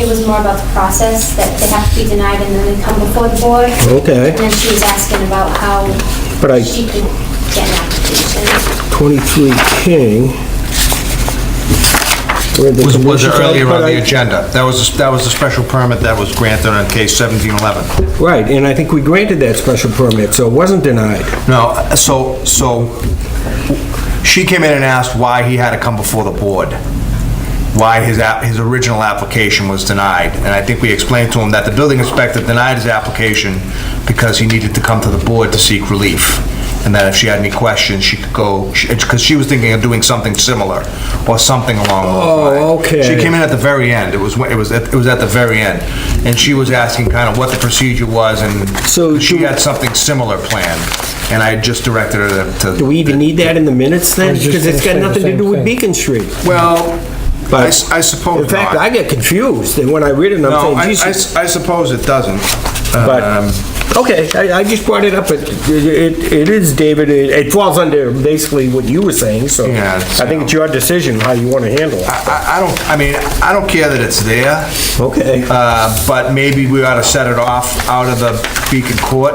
was more about the process, that they have to be denied and then they come before the board. Okay. And then she was asking about how But I- she could get an application. 23 King. Where'd the Was was condition- it earlier on but the I- agenda? That was, that was a special permit that was granted on case 1711. Right, and I think we granted that special permit, so it wasn't denied. No, so, so she came in and asked why he had to come before the board, why his, app- his original application was denied. And I think we explained to him that the building inspector denied his application because he needed to come to the board to seek relief. And that if she had any questions, she could go, because she was thinking of doing something similar or something along those lines. Oh, okay. She came in at the very end. It was, when- it was, at- it was at the very end. And she was asking kind of what the procedure was and So she do- had something similar planned. And I just directed her to. Do we even need that in the minutes then? Because it's got nothing to do with Beacon Street. Well, I But- s- I suppose In fact, I not. get confused, and when I read it, No, I- I'm I saying, Jesus. s- I suppose it doesn't. Um, But, okay, I, I just brought it up, it, it it is, David, it it falls under basically what you were saying, so Yeah, it's- I think it's your decision how you want to handle it. I I don't, I mean, I don't care that it's there, Okay. uh, but maybe we ought to set it off out of the Beacon Court.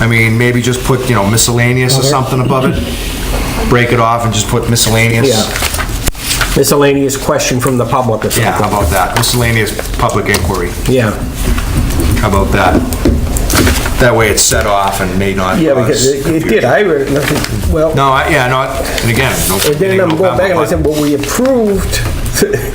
I mean, maybe just put, you know, miscellaneous or something above it. Break it off and just put miscellaneous. Yeah. Miscellaneous question from the public or Yeah, how something. about that? Miscellaneous public inquiry. Yeah. How about that? That way it's set off and may not Yeah, cause because it it did, confusion. I read, it, nothing- well, No, I- yeah, no, and again, no. and then I'm going back and I said, well, we approved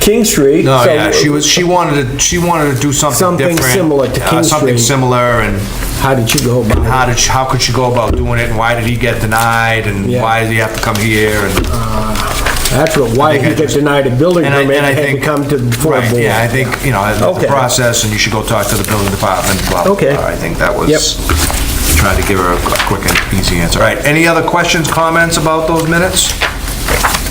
King Street. No, so- yeah, she was, she wanted to, she wanted to do something Something different. similar to uh, King Something Street. similar, and How did you go about it? how did, she- how could she go about doing it, and why did he get denied, and Yeah. why did he have to come here, and... That's what, why I think he I got just- denied a building and I- permit and I and had to think- come to the full board. Right, yeah, I think, you know, it's Okay. the process, and you should go talk to the building department, blah, blah, Okay. blah. I think that was, Yep. trying to give her a qu- quick and easy answer. All right, any other questions, comments about those minutes?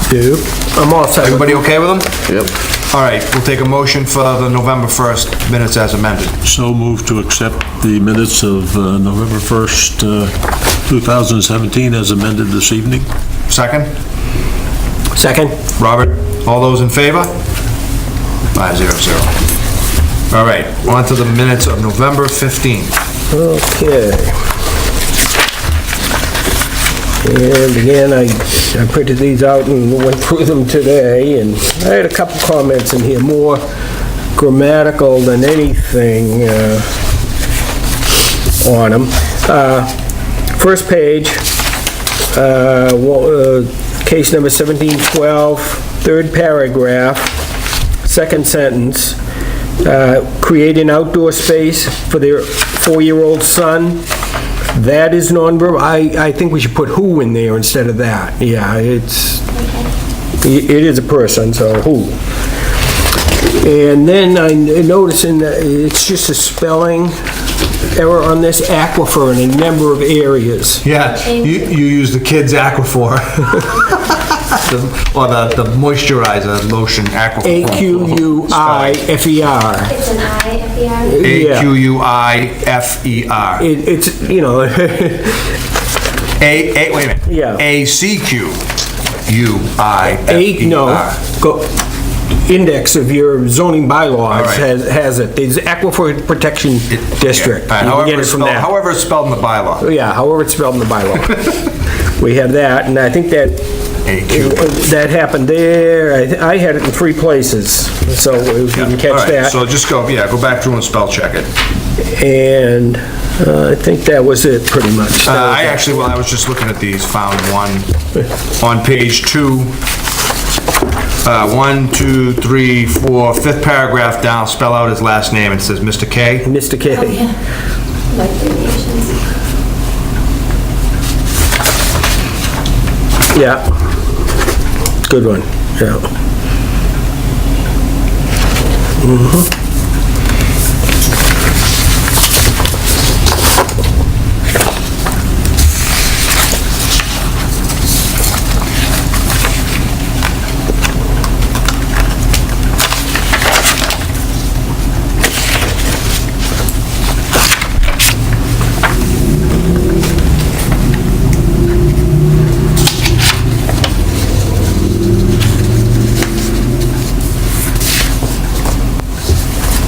Do, I'm all set. with- Everybody okay with them? Yep. All right, we'll take a motion for the November 1st minutes as amended. So moved to accept the minutes of uh, November 1st, uh, 2017 as amended this evening. Second? Second? Robert, all those in favor? Five zero zero. All right, on to the minutes of November 15th. Okay. And again, I, I printed these out and went through them today, and I had a couple comments in here, more grammatical than anything uh, on them. Uh, First page, uh, wa- uh, case number 1712, third paragraph, second sentence, uh, create an outdoor space for their four-year-old son. That is nonverbal. I, I think we should put who in there instead of that. Yeah, it's, i- it is a person, so who. And then I notice in, the- it's just a spelling error on this aquifer in a number of areas. Yeah, you, you use the kid's Aquaphor. The- Or the the moisturizer lotion Aquaphor. A-Q-U-I-F-E-R. It's an I at the end. E yeah. E A-Q-U-I-F-E-R. It- It's, you know, A, A, wait a minute. Yeah. A-C-Q-U-I-F-E-R. eight, no, go, index of your zoning bylaws right. has, has it, there's aquifer protection district. Yeah, all right, You can get however it it's from spelled- that. Oh, However it's spelled in the bylaw. Yeah, however it's spelled in the bylaw. We have that, and I think that, AQ. that happened there, I, th- I had it in three places, so if you can All catch right, that. So just go, yeah, go back through and spell check it. And uh, I think that was it, pretty much. Uh, I actually, well, I was just looking at these, found one on page two. Uh, One, two, three, four, fifth paragraph down, spell out his last name. It says Mr. K. Mr. K, Like variations. yeah. Good one, yeah.